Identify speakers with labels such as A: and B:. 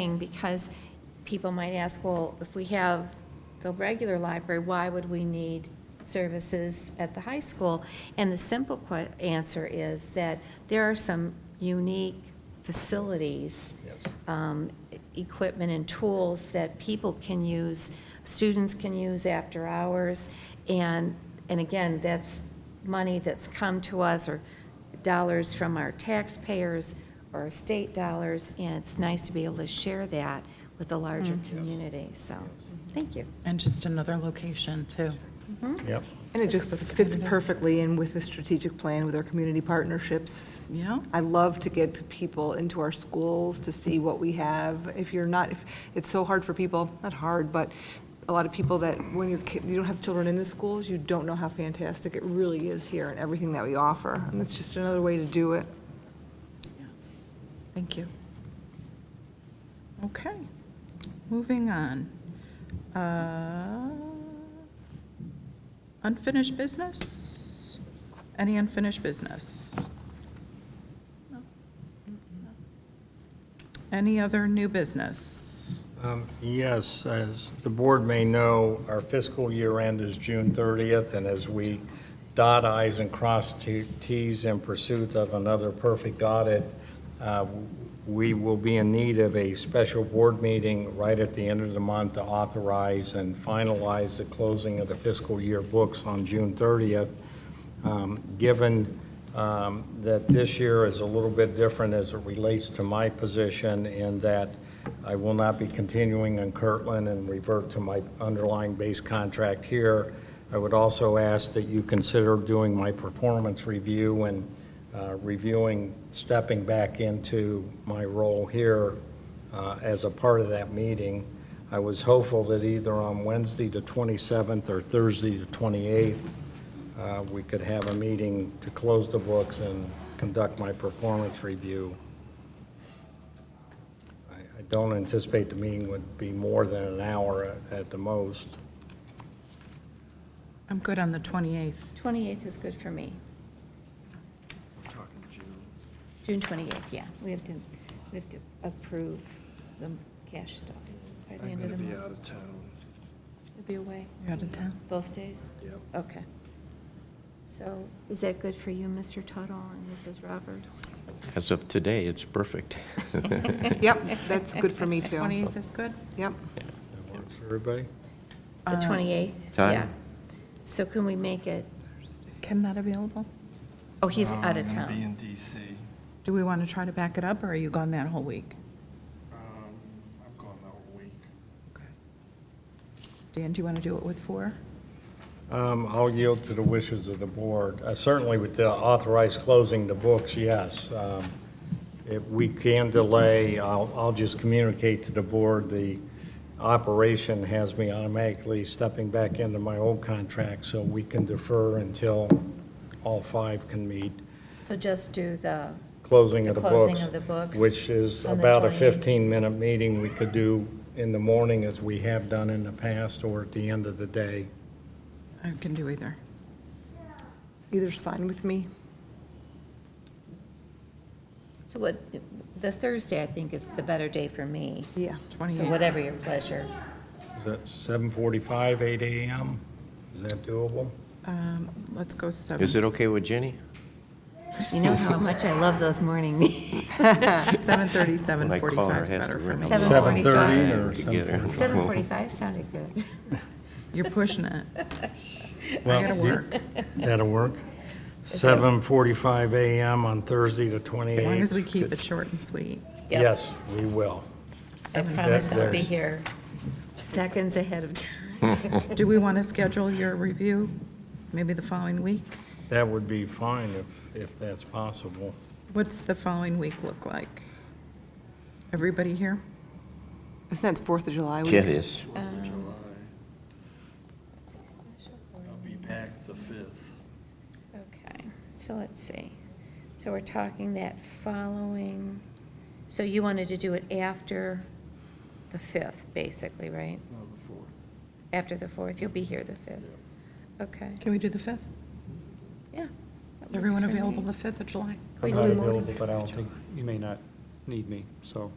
A: thing, because people might ask, well, if we have the regular library, why would we need services at the high school? And the simple que- answer is that there are some unique facilities
B: Yes.
A: um, equipment and tools that people can use, students can use after hours. And, and again, that's money that's come to us or dollars from our taxpayers or state dollars. And it's nice to be able to share that with the larger community. So, thank you.
C: And just another location, too.
B: Yep.
D: And it just fits perfectly in with the strategic plan with our community partnerships.
C: Yeah.
D: I love to get people into our schools to see what we have. If you're not, if, it's so hard for people, not hard, but a lot of people that when you're, ki- you don't have children in the schools, you don't know how fantastic it really is here and everything that we offer. And it's just another way to do it.
C: Thank you. Okay, moving on. Uh, Unfinished business? Any unfinished business? No. Any other new business?
B: Um, Yes, as the board may know, our fiscal year end is June 30th, and as we dot i's and cross t- t's in pursuit of another perfect audit, uh, we will be in need of a special board meeting right at the end of the month to authorize and finalize the closing of the fiscal year books on June 30th. Um, Given um, that this year is a little bit different as it relates to my position in that I will not be continuing on Kirtland and revert to my underlying base contract here. I would also ask that you consider doing my performance review and uh, reviewing, stepping back into my role here uh, as a part of that meeting. I was hopeful that either on Wednesday the 27th or Thursday the 28th, uh, we could have a meeting to close the books and conduct my performance review. I I don't anticipate the meeting would be more than an hour at- at the most.
C: I'm good on the 28th.
A: 28th is good for me. June 28th, yeah. We have to, we have to approve the cash stuff by the end of the month.
E: of town.
A: You'll be away?
C: You're out of town?
A: Both days?
E: Yep.
A: Okay. So is that good for you, Mr. Tuttle and Mrs. Roberts?
F: As of today, it's perfect.
D: Yep, that's good for me too.
C: 28th is good?
D: Yep.
B: That works for everybody?
A: The 28th?
F: Time?
A: Yeah. So can we make it,
C: Is Ken not available?
A: oh, he's out of
E: Um, I'm
A: town.
E: going to be in DC.
C: Do we want to try to back it up, or are you gone that whole week?
E: Um, I'm gone the whole week.
C: Okay. Dan, do you want to do it with four?
B: Um, I'll yield to the wishes of the board. Uh, Certainly with the authorized closing the books, yes. Um, If we can delay, I'll, I'll just communicate to the board, the operation has me automatically stepping back into my old contract, so we can defer until all five can meet,
A: So just do the,
B: closing
A: The
B: of the books.
A: closing of the books
B: Which is
A: on the
B: about a
A: 28th.
B: 15-minute meeting we could do in the morning, as we have done in the past, or at the end of the day.
C: I can do either.
D: Either's fine with me.
A: so what, the Thursday, I think, is the better day for me.
D: Yeah.
A: So
C: 28th.
A: whatever your pleasure.
B: Is that 7:45, 8 AM? Is that doable?
C: Um, Let's go seven.
F: Is it okay with Jenny?
A: You know how much I love those morning meetings.
C: 7:30,
F: When I call
C: 7:45
F: her,
C: is
F: has
C: better
F: to
C: for me.
A: 7:45.
B: 7:30
F: ring.
B: or
F: To get her.
A: 7:45 sounded good.
C: You're pushing it.
B: Well,
C: gotta
B: do-
C: work.
B: That'll work. 7:45 AM on Thursday, the 28th.
C: As long as we keep it short and sweet.
A: Yep.
B: Yes, we will.
A: I promise I'll be
B: there's-
A: here seconds ahead of time.
C: Do we want to schedule your review maybe the following week?
B: That would be fine if, if that's possible.
C: What's the following week look like? Everybody here?
D: Isn't that the Fourth of July week?
F: It is.
E: Fourth
A: Um,
E: of July. I'll be back the fifth.
A: Okay, so let's see. So we're talking that following, so you wanted to do it after the 5th, basically, right?
E: No, the fourth.
A: After the 4th, you'll be here the 5th. Okay,
C: Can we do the 5th?
A: yeah.
C: Is everyone available the 5th of July?
A: We
G: I'm
A: do
G: not
A: morning.
G: available, but I don't think, you may not need me, so